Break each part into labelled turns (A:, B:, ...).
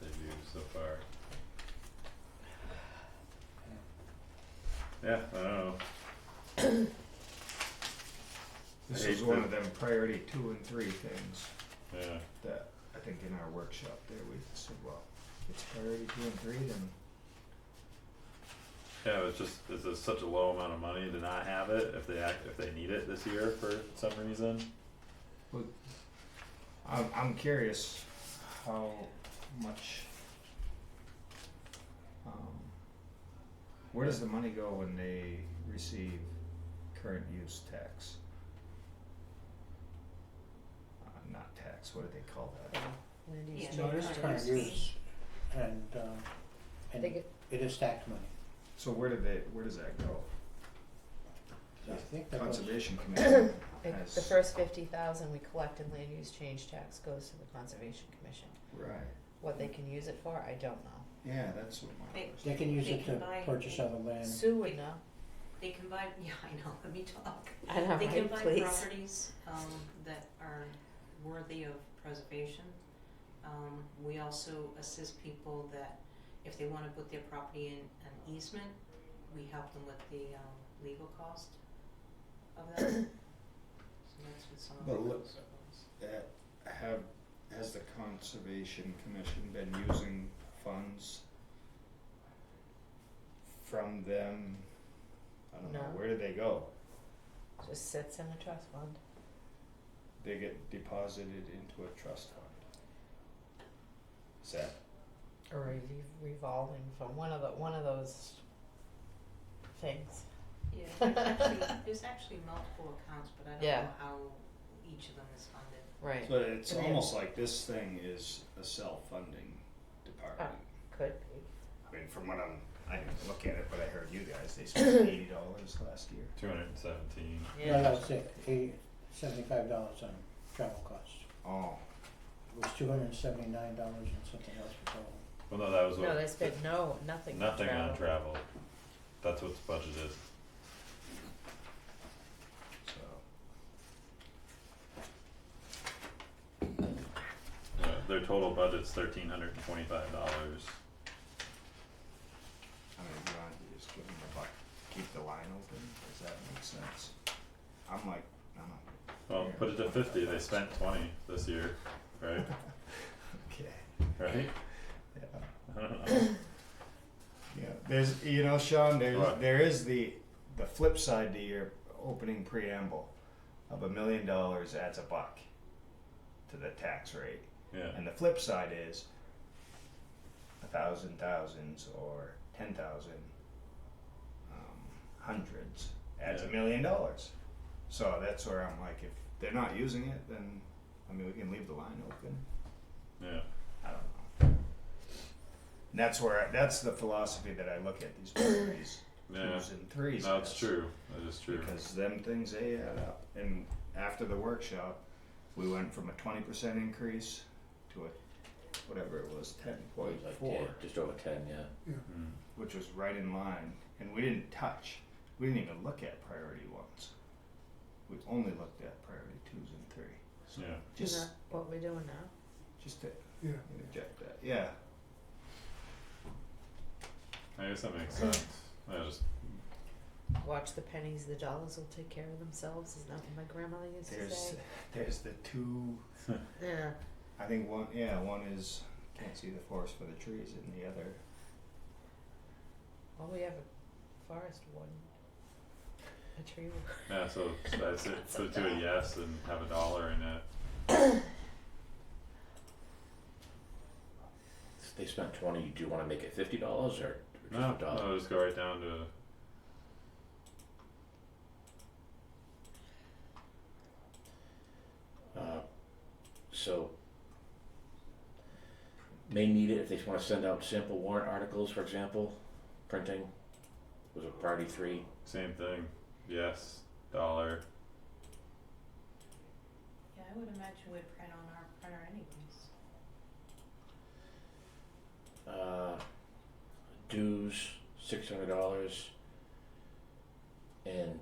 A: they've used so far. Yeah, I don't know,
B: This
A: I
B: is
A: hate
B: one
A: to-
B: of them priority two and three things
A: yeah,
B: that I think in our workshop there we said, well, it's priority two and three, then
A: yeah, it's just, it's a such a low amount of money to not have it if they act, if they need it this year for some reason.
B: I'm I'm curious how much um where does the money go when they receive current use tax? Uh, not tax, what do they call that?
C: Land use
D: Yeah.
C: change
D: No, it is
C: ordinance.
D: current
E: use, and, um,
C: I
E: and
C: think
E: it
C: it,
E: is tax money,
B: So where do they, where does that go?
E: so I think that was,
B: Conservation Commission
C: I-
B: has.
C: the first fifty thousand we collect in land use change tax goes to the conservation commission.
B: Right,
C: What they can use it for, I don't know.
B: yeah, that's what my
D: They-
B: question.
E: they can use
D: They
E: it
D: can
E: to
D: buy-
E: purchase other land,
C: Sue would know.
D: They combine, yeah, I know, let me talk.
C: I know,
D: They
C: right,
D: combine
C: please.
D: properties, um, that are worthy of preservation. Um, we also assist people that if they wanna put their property in an easement, we help them with the, um, legal cost of that. So that's what some of
B: But
D: the
B: let-
D: costs are.
B: that have, has the Conservation Commission been using funds from them? I don't know,
C: No.
B: where do they go?
C: Just sits in the trust fund.
B: They get deposited into a trust fund. Is that,
C: Or a re- revolving fund, one of the, one of those things.
D: Yeah, there's actually, there's actually multiple accounts, but I don't
C: Yeah.
D: know how each of them is funded.
C: Right.
B: so it's
C: It is.
B: almost like this thing is a self-funding
C: Oh.
B: department.
C: Could be.
B: I mean, from what I'm, I didn't look at it, but I heard you guys, they spent eighty dollars last year.
A: Two hundred and seventeen,
E: no, no, it's like eight, seventy-five dollars on travel costs,
B: Oh,
E: it was two hundred and seventy-nine dollars and something else for travel.
A: well, no, that was what.
C: No, they spent no, nothing on
A: Nothing on
C: travel.
A: travel, that's what's budgeted,
B: so,
A: uh, their total budget's thirteen hundred and twenty-five dollars.
B: I mean, you want to just give them the buck, keep the line open, does that make sense? I'm like, I'm like,
A: Well, put it to fifty, they spent twenty this year, right,
B: okay,
A: right?
B: yeah,
A: I don't know.
B: yeah, there's, you know, Sean, there's,
A: What?
B: there is the, the flip side to your opening preamble of a million dollars adds a buck to the tax rate,
A: Yeah,
B: and the flip side is a thousand thousands or ten thousand um, hundreds adds a
A: Yeah.
B: million dollars. So that's where I'm like, if they're not using it, then I mean, we can leave the line open.
A: yeah,
B: I don't know. And that's where I, that's the philosophy that I look at these priorities
A: yeah,
B: twos and threes.
A: no, it's
B: as,
A: true, that is true,
B: Because them things they add up. And after the workshop, we went from a twenty percent increase to a whatever it was, ten point
F: Like
B: four,
F: 10, just over ten, yeah.
A: mm,
B: which was right in line. And we didn't touch. We didn't even look at priority ones. We only looked at priority twos and three. So
A: yeah,
C: Isn't
B: just
C: that what we're doing now?
B: just to
F: Yeah.
B: interject that. Yeah.
A: I guess that makes sense, I just,
C: Watch the pennies, the dollars will take care of themselves, is not what my grandmother used to
B: There's
C: say.
B: there's the two
C: Yeah.
B: I think one, yeah, one is can't see the forest for the trees, and the other,
C: Well, we have a forest warden. A tree warden.
A: yeah, so, so I said, so do a yes and have a dollar in it,
F: If They spent twenty, do you wanna make it fifty dollars or or just
A: no,
F: a dollar?
A: no, just go right down to.
F: Uh, so. May need it if they wanna send out sample warrant articles, for example, printing was a priority three.
A: Same thing. Yes, dollar.
D: Yeah, I would imagine we'd print on our printer anyways.
F: Uh, dues, six hundred dollars. And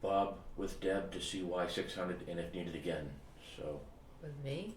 F: Bob with Deb to see why six hundred and if needed again, so
C: With me?